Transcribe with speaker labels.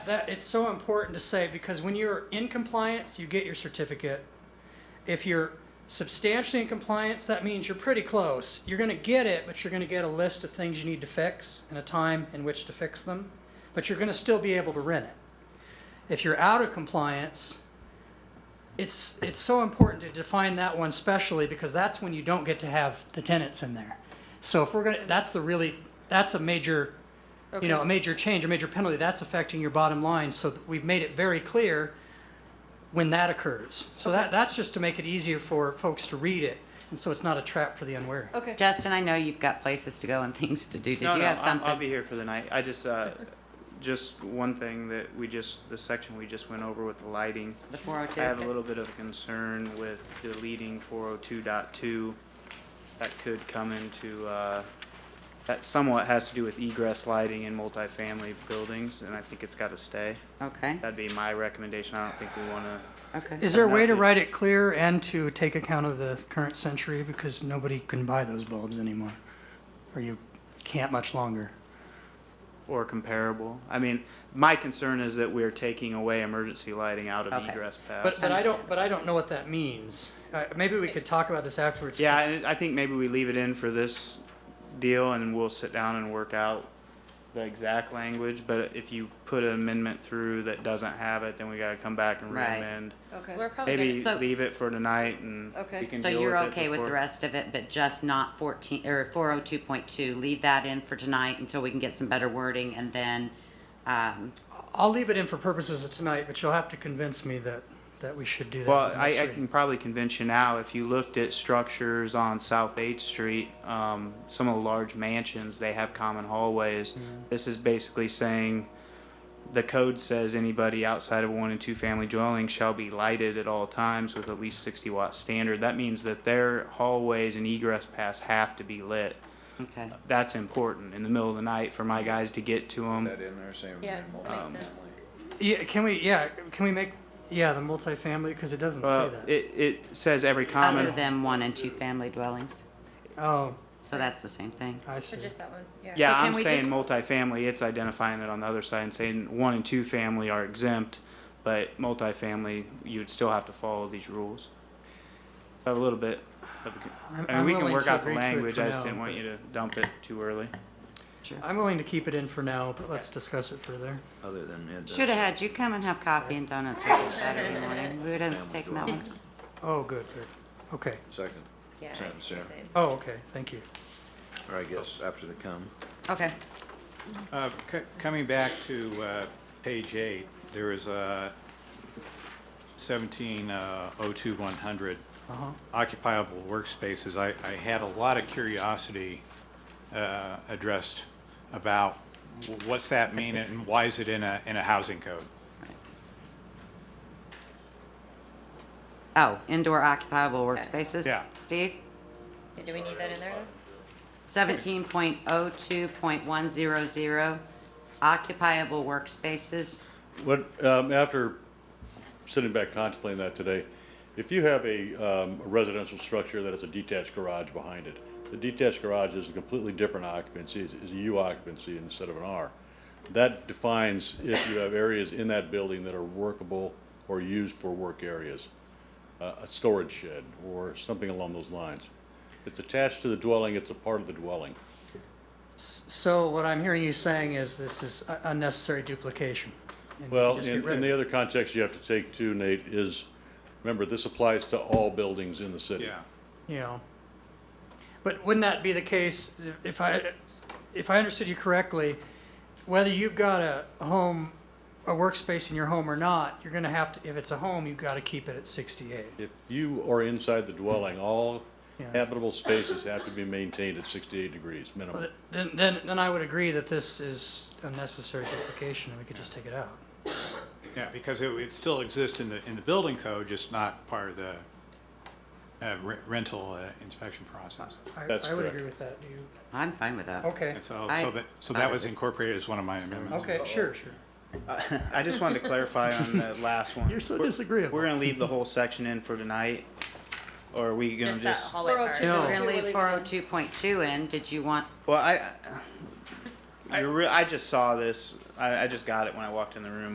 Speaker 1: That it's so important to say because when you're in compliance, you get your certificate. If you're substantially in compliance, that means you're pretty close. You're going to get it, but you're going to get a list of things you need to fix and a time in which to fix them, but you're going to still be able to rent it. If you're out of compliance, it's it's so important to define that one specially because that's when you don't get to have the tenants in there. So if we're going to that's the really that's a major you know, a major change, a major penalty, that's affecting your bottom line. So th- we've made it very clear when that occurs. So that, that's just to make it easier for folks to read it. And so it's not a trap for the unwary.
Speaker 2: Okay.
Speaker 3: Justin, I know you've got places to go and things to do. Did
Speaker 4: no,
Speaker 3: you
Speaker 4: no,
Speaker 3: have
Speaker 4: I'm-
Speaker 3: something?
Speaker 4: I'll be here for the night. I just, uh, just one thing that we just, the section we just went over with the lighting.
Speaker 3: The 402?
Speaker 4: I have a little bit of a concern with deleting 402.2. That could come into, uh, that somewhat has to do with egress lighting in multifamily buildings, and I think it's got to stay.
Speaker 3: Okay,
Speaker 4: That'd be my recommendation. I don't think we want to
Speaker 3: okay.
Speaker 1: Is there a way to write it clear and to take account of the current century? Because nobody can buy those bulbs anymore, or you can't much longer.
Speaker 4: or comparable. I mean, my concern is that we're taking away emergency lighting out of
Speaker 3: Okay.
Speaker 4: egress
Speaker 1: But,
Speaker 4: paths.
Speaker 1: but I don't, but I don't know what that means. Uh, maybe we could talk about this afterwards.
Speaker 4: Yeah, I, I think maybe we leave it in for this deal and we'll sit down and work out the exact language, but if you put an amendment through that doesn't have it, then we gotta come back and
Speaker 3: Right.
Speaker 4: re-amend.
Speaker 2: Okay.
Speaker 5: We're probably gonna-
Speaker 4: Maybe
Speaker 3: So-
Speaker 4: leave it for tonight and
Speaker 2: Okay.
Speaker 4: we can
Speaker 3: So
Speaker 4: deal with
Speaker 3: you're
Speaker 4: it
Speaker 3: okay with the
Speaker 4: before-
Speaker 3: rest of it, but just not 14, or 402.2? Leave that in for tonight until we can get some better wording and then, um,
Speaker 1: I'll leave it in for purposes of tonight, but you'll have to convince me that, that we should do that.
Speaker 4: Well,
Speaker 1: with the
Speaker 4: I,
Speaker 1: next
Speaker 4: I
Speaker 1: reading.
Speaker 4: can probably convince you now, if you looked at structures on South Eighth Street, um, some of the large mansions, they have common hallways.
Speaker 1: Mm-hmm.
Speaker 4: This is basically saying, the code says anybody outside of one and two family dwellings shall be lighted at all times with at least sixty watt standard. That means that their hallways and egress paths have to be lit.
Speaker 3: okay.
Speaker 4: That's important in the middle of the night for my guys to get to them.
Speaker 6: that in there, same
Speaker 5: Yeah,
Speaker 6: in
Speaker 5: that makes
Speaker 6: multifamily.
Speaker 5: sense.
Speaker 1: Yeah, can we? Yeah, can we make? Yeah, the multifamily because it doesn't
Speaker 4: Well,
Speaker 1: say that.
Speaker 4: it, it says every
Speaker 3: Other
Speaker 4: common,
Speaker 3: than one and two family dwellings,
Speaker 1: oh,
Speaker 3: so that's the same thing.
Speaker 1: I see.
Speaker 5: So just that one, yeah.
Speaker 4: Yeah,
Speaker 3: So can
Speaker 4: I'm
Speaker 3: we
Speaker 4: saying
Speaker 3: just-
Speaker 4: multifamily, it's identifying it on the other side and saying one and two family are exempt, but multifamily, you'd still have to follow these rules. A little bit of, a con-
Speaker 1: I'm,
Speaker 4: I mean,
Speaker 1: I'm
Speaker 4: we can
Speaker 1: willing
Speaker 4: work
Speaker 1: to
Speaker 4: out the
Speaker 1: agree to it
Speaker 4: language,
Speaker 1: for
Speaker 4: I just
Speaker 1: now,
Speaker 4: didn't want
Speaker 1: but-
Speaker 4: you to dump it too early.
Speaker 1: I'm willing to keep it in for now, but let's discuss it further.
Speaker 6: Other than it does.
Speaker 3: Should have had you come and have coffee and donuts with us Saturday morning. We would have
Speaker 6: Family
Speaker 3: taken that one.
Speaker 6: dwelling.
Speaker 1: Oh, good, good. Okay.
Speaker 6: Second,
Speaker 5: Yeah, I see
Speaker 6: Sentence
Speaker 5: what you're
Speaker 6: there.
Speaker 5: saying.
Speaker 1: Oh, okay. Thank you.
Speaker 6: or I guess after the come.
Speaker 3: Okay,
Speaker 7: Uh, c- Coming back to uh, page eight, there is uh, a uh, 1702-100 occupiable workspaces. I I had a lot of curiosity uh, addressed about w- what's that mean and why is it in a, in a housing code?
Speaker 3: oh, indoor occupiable workspaces?
Speaker 7: Yeah.
Speaker 3: Steve?
Speaker 5: Yeah, Do we need that in there?
Speaker 3: Seventeen point oh two point one zero zero, occupiable workspaces.
Speaker 8: What, um, after sitting back contemplating that today, if you have a, um, a residential structure that has a detached garage behind it, the detached garage is a completely different occupancy, is, is a U occupancy instead of an R. That defines if you have areas in that building that are workable or used for work areas, uh, a storage shed or something along those lines. It's attached to the dwelling, it's a part of the dwelling.
Speaker 1: S- So what I'm hearing you saying is this is u- unnecessary duplication. and we can
Speaker 8: Well,
Speaker 1: just get
Speaker 8: and,
Speaker 1: rid
Speaker 8: and
Speaker 1: of
Speaker 8: the
Speaker 1: it.
Speaker 8: other context you have to take too, Nate, is, remember, this applies to all buildings in the city.
Speaker 7: Yeah.
Speaker 1: you know. But wouldn't that be the case if I, if I understood you correctly, whether you've got a home, a workspace in your home or not, you're gonna have to, if it's a home, you've gotta keep it at sixty-eight.
Speaker 8: If you are inside the dwelling, all
Speaker 1: Yeah.
Speaker 8: habitable spaces have to be maintained at sixty-eight degrees minimum.
Speaker 1: Well, Then, then, then I would agree that this is unnecessary duplication and we could just take it out.
Speaker 7: Yeah, because it it still exists in the, in the building code, just not part of the uh, re- rental uh, inspection process.
Speaker 1: I-
Speaker 8: That's
Speaker 1: I would
Speaker 8: correct.
Speaker 1: agree with that. Do you,
Speaker 3: I'm fine with that.
Speaker 1: okay,
Speaker 7: And so,
Speaker 3: I
Speaker 7: so that, so
Speaker 3: thought
Speaker 7: that
Speaker 3: it
Speaker 7: was
Speaker 3: was-
Speaker 7: incorporated as one of my amendments.
Speaker 1: okay, sure, sure.
Speaker 4: I just wanted to clarify on the last one.
Speaker 1: You're so
Speaker 4: We're-
Speaker 1: disagreeable.
Speaker 4: We're gonna leave the whole section in for tonight, or are we gonna
Speaker 5: Just that
Speaker 4: just?
Speaker 5: hallway part.
Speaker 2: 402.
Speaker 1: No.
Speaker 3: We're gonna
Speaker 2: Really
Speaker 3: leave
Speaker 2: good.
Speaker 3: four oh two point two in. Did you want,
Speaker 4: Well, I, I, you're re- I just saw this, I, I just got it when I walked in the room,